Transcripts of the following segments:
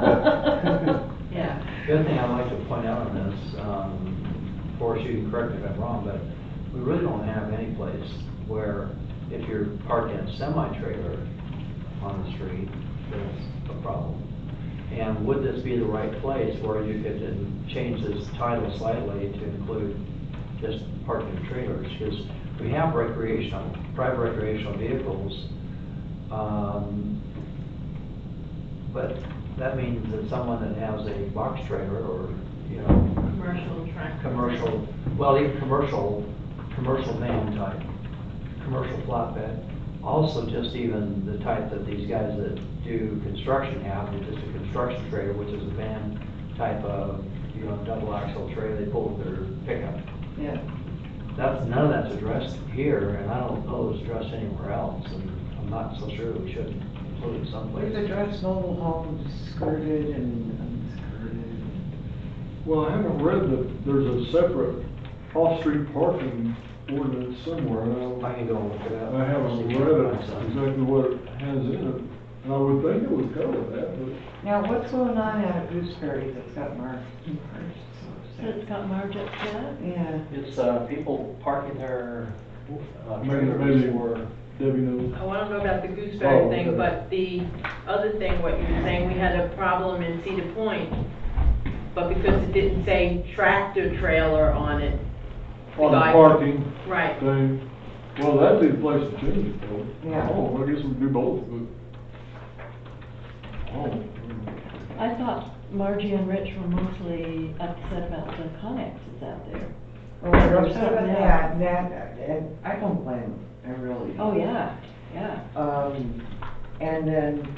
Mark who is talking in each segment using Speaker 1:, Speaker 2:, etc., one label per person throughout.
Speaker 1: dollars.
Speaker 2: Yeah,
Speaker 3: The other thing I'd like to point out on this, um, Forrest, you can correct me if I'm wrong, but we really don't have any place where if you're parked in a semi-trailer on the street, that's a problem. And would this be the right place where you could then change this title slightly to include just parking trailers? Because we have recreational, private recreational vehicles, um, but that means that someone that has a box trailer or, you know,
Speaker 2: commercial tractor.
Speaker 3: commercial, well, even commercial, commercial van type, commercial flatbed. Also, just even the type that these guys that do construction have, which is a construction trailer, which is a van type of, you know, double axle trailer they pull with their pickup.
Speaker 1: Yeah.
Speaker 3: That's, none of that's addressed here, and I don't know it's addressed anywhere else, and I'm not so sure we should include it someplace.
Speaker 1: We've addressed mobile homes, skirted and unskirted.
Speaker 4: Well, I haven't read that there's a separate off-street parking ordinance somewhere, and I don't-
Speaker 3: I can go and look it up.
Speaker 4: I haven't
Speaker 3: See if
Speaker 4: read
Speaker 3: I
Speaker 4: it,
Speaker 3: can find something.
Speaker 4: exactly what it has in it, and I would think it would cover that, but
Speaker 1: Now, what's going on out at Gooseberry that's got marked? marked
Speaker 2: So it's got margin up
Speaker 1: Yeah,
Speaker 3: It's, uh, people parking their, uh,
Speaker 4: maybe, maybe where Debbie knows.
Speaker 5: I want to go about the
Speaker 4: Oh,
Speaker 5: gooseberry
Speaker 4: okay.
Speaker 5: thing, but the other thing, what you were saying, we had a problem in Cedar Point, but because it didn't say tractor trailer on it. the
Speaker 4: On the
Speaker 5: guy-
Speaker 4: parking
Speaker 5: Right,
Speaker 4: thing, well, that'd be the place to change it, though.
Speaker 1: Yeah.
Speaker 4: Oh, I guess we'd do both, but. Oh,
Speaker 2: I thought Margie and Rich were mostly upset about the connexes out there.
Speaker 1: well, there's
Speaker 2: Something
Speaker 1: something,
Speaker 2: else.
Speaker 1: yeah, that, and I don't blame them, I really
Speaker 2: Oh,
Speaker 1: don't.
Speaker 2: yeah, yeah.
Speaker 1: Um, and then,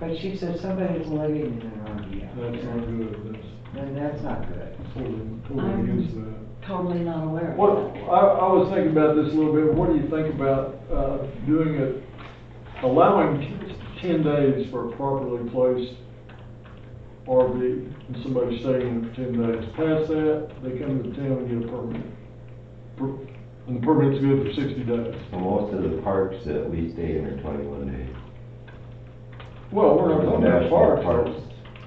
Speaker 1: but she said somebody's living in an RV out
Speaker 4: that's
Speaker 1: there,
Speaker 4: not good, that's
Speaker 1: and that's not good.
Speaker 4: totally, totally against that.
Speaker 2: Totally not aware of
Speaker 4: What,
Speaker 2: that.
Speaker 4: I, I was thinking about this a little bit, what do you think about, uh, doing it, allowing ten days for a properly placed RV, and somebody staying in it for ten days, past that, they come to town and get a permit. Per- And the permit's good for sixty days.
Speaker 6: Well, Most of the parks that we stay in are twenty-one days.
Speaker 4: Well, we're not talking about
Speaker 6: National
Speaker 4: parks.
Speaker 6: parks.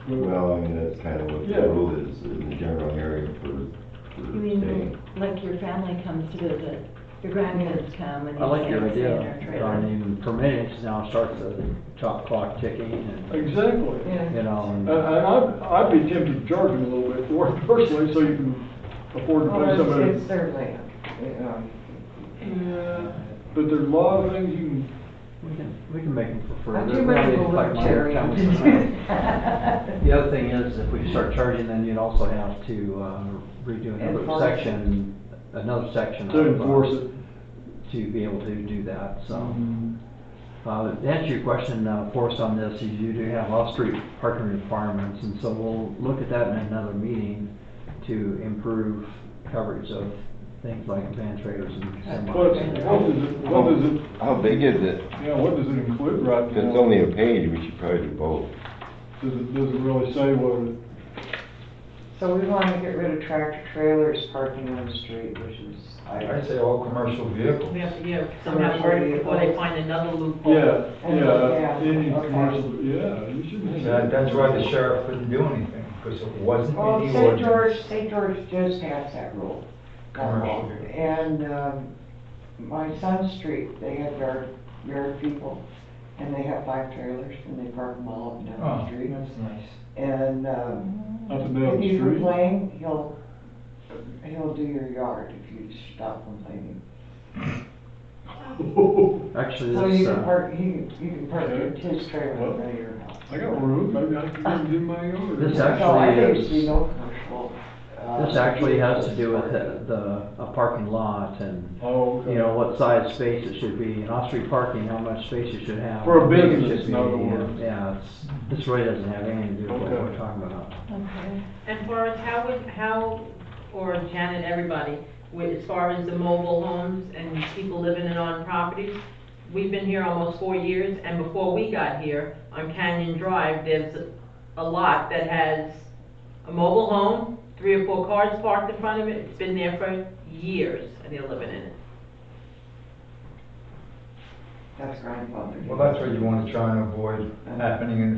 Speaker 4: but-
Speaker 6: Well, I mean, that's kind of what
Speaker 4: Yeah.
Speaker 6: the rule is in the general area for, for
Speaker 2: You
Speaker 6: staying.
Speaker 2: mean, like your family comes to visit, your grandkids come and
Speaker 7: I like
Speaker 2: you
Speaker 7: your
Speaker 2: can't stay in their
Speaker 7: idea, I
Speaker 2: trailer.
Speaker 7: mean, per minutes now starts the top clock ticking and,
Speaker 4: Exactly.
Speaker 7: you know,
Speaker 4: And,
Speaker 7: and
Speaker 4: and I'd, I'd be tempted to charge them a little bit for it personally, so you can afford to pay
Speaker 1: Well,
Speaker 4: somebody.
Speaker 1: it's, it's their land, um, you know.
Speaker 4: Yeah, but there's a lot of things you can
Speaker 7: we can, we can make them for free.
Speaker 1: I'm
Speaker 7: They're
Speaker 1: too much of
Speaker 7: really
Speaker 1: a
Speaker 7: like my
Speaker 1: libertarian to
Speaker 7: family.
Speaker 1: do that.
Speaker 7: The other thing is, if we start charging, then you'd also have to uh, redo another
Speaker 1: Enforce it.
Speaker 7: section, another section.
Speaker 4: to
Speaker 7: of, uh,
Speaker 4: enforce it.
Speaker 7: To be able to do that, so.
Speaker 1: Mm-hmm.
Speaker 7: Uh, to answer your question, uh, Forrest, on this, is you do have off-street parking requirements, and so we'll look at that in another meeting to improve coverage of things like van trailers and
Speaker 4: What, what
Speaker 7: semis.
Speaker 4: does it, what does it,
Speaker 6: How big is it?
Speaker 4: yeah, what does it include right
Speaker 6: If
Speaker 4: now?
Speaker 6: it's only a page, we should probably do both.
Speaker 4: Does it, does it really say what it,
Speaker 1: So we want to get rid of tractor trailers parking on the street, which is, I,
Speaker 8: I say all commercial vehicles.
Speaker 5: we have to, yeah, somehow worry before they find another loophole.
Speaker 4: yeah,
Speaker 1: Yeah,
Speaker 4: yeah, any
Speaker 1: okay.
Speaker 4: commercial, yeah, you shouldn't have.
Speaker 8: That- That's why the sheriff couldn't do anything, because it wasn't
Speaker 1: well,
Speaker 8: in the
Speaker 1: St.
Speaker 8: ordinance.
Speaker 1: Oh, George, St. George does pass that rule. that law.
Speaker 8: Commercial.
Speaker 1: And, um, my son's street, they have yard, yard people, and they have five trailers, and they park them all up and down the
Speaker 8: Oh,
Speaker 1: street.
Speaker 8: that's nice.
Speaker 1: And, um,
Speaker 4: Up and down
Speaker 1: if
Speaker 4: the
Speaker 1: you
Speaker 4: street.
Speaker 1: complain, he'll, he'll do your yard if you stop complaining. So
Speaker 7: Actually,
Speaker 1: you
Speaker 7: this,
Speaker 1: can
Speaker 7: uh,
Speaker 1: park, you, can- you can park your- his trailer in front of your house.
Speaker 4: I got room, maybe I can go do my yard.
Speaker 7: This
Speaker 1: So I
Speaker 7: actually
Speaker 1: think
Speaker 7: is-
Speaker 1: it should be no commercial, uh,
Speaker 7: this actually has to do with
Speaker 1: vehicles
Speaker 7: the, the- a parking lot and,
Speaker 4: Oh, okay.
Speaker 7: you know, what size space it should be, and off-street parking, how much space you should have.
Speaker 4: For a
Speaker 7: how big it
Speaker 4: business,
Speaker 7: should be,
Speaker 4: in other
Speaker 7: yeah.
Speaker 4: words.
Speaker 7: Yeah, it's, this really doesn't have anything to do with what
Speaker 4: Okay.
Speaker 7: we're talking about.
Speaker 2: Okay.
Speaker 5: And Forrest, how would, how, or Janet, everybody, with, as far as the mobile homes and people living in on properties, we've been here almost four years, and before we got here, on Canyon Drive, there's a- a lot that has a mobile home, three or four cars parked in front of it, it's been there for years, and they're living in it.
Speaker 1: That's grandfathered.
Speaker 8: Well, that's what you want to try and avoid happening in the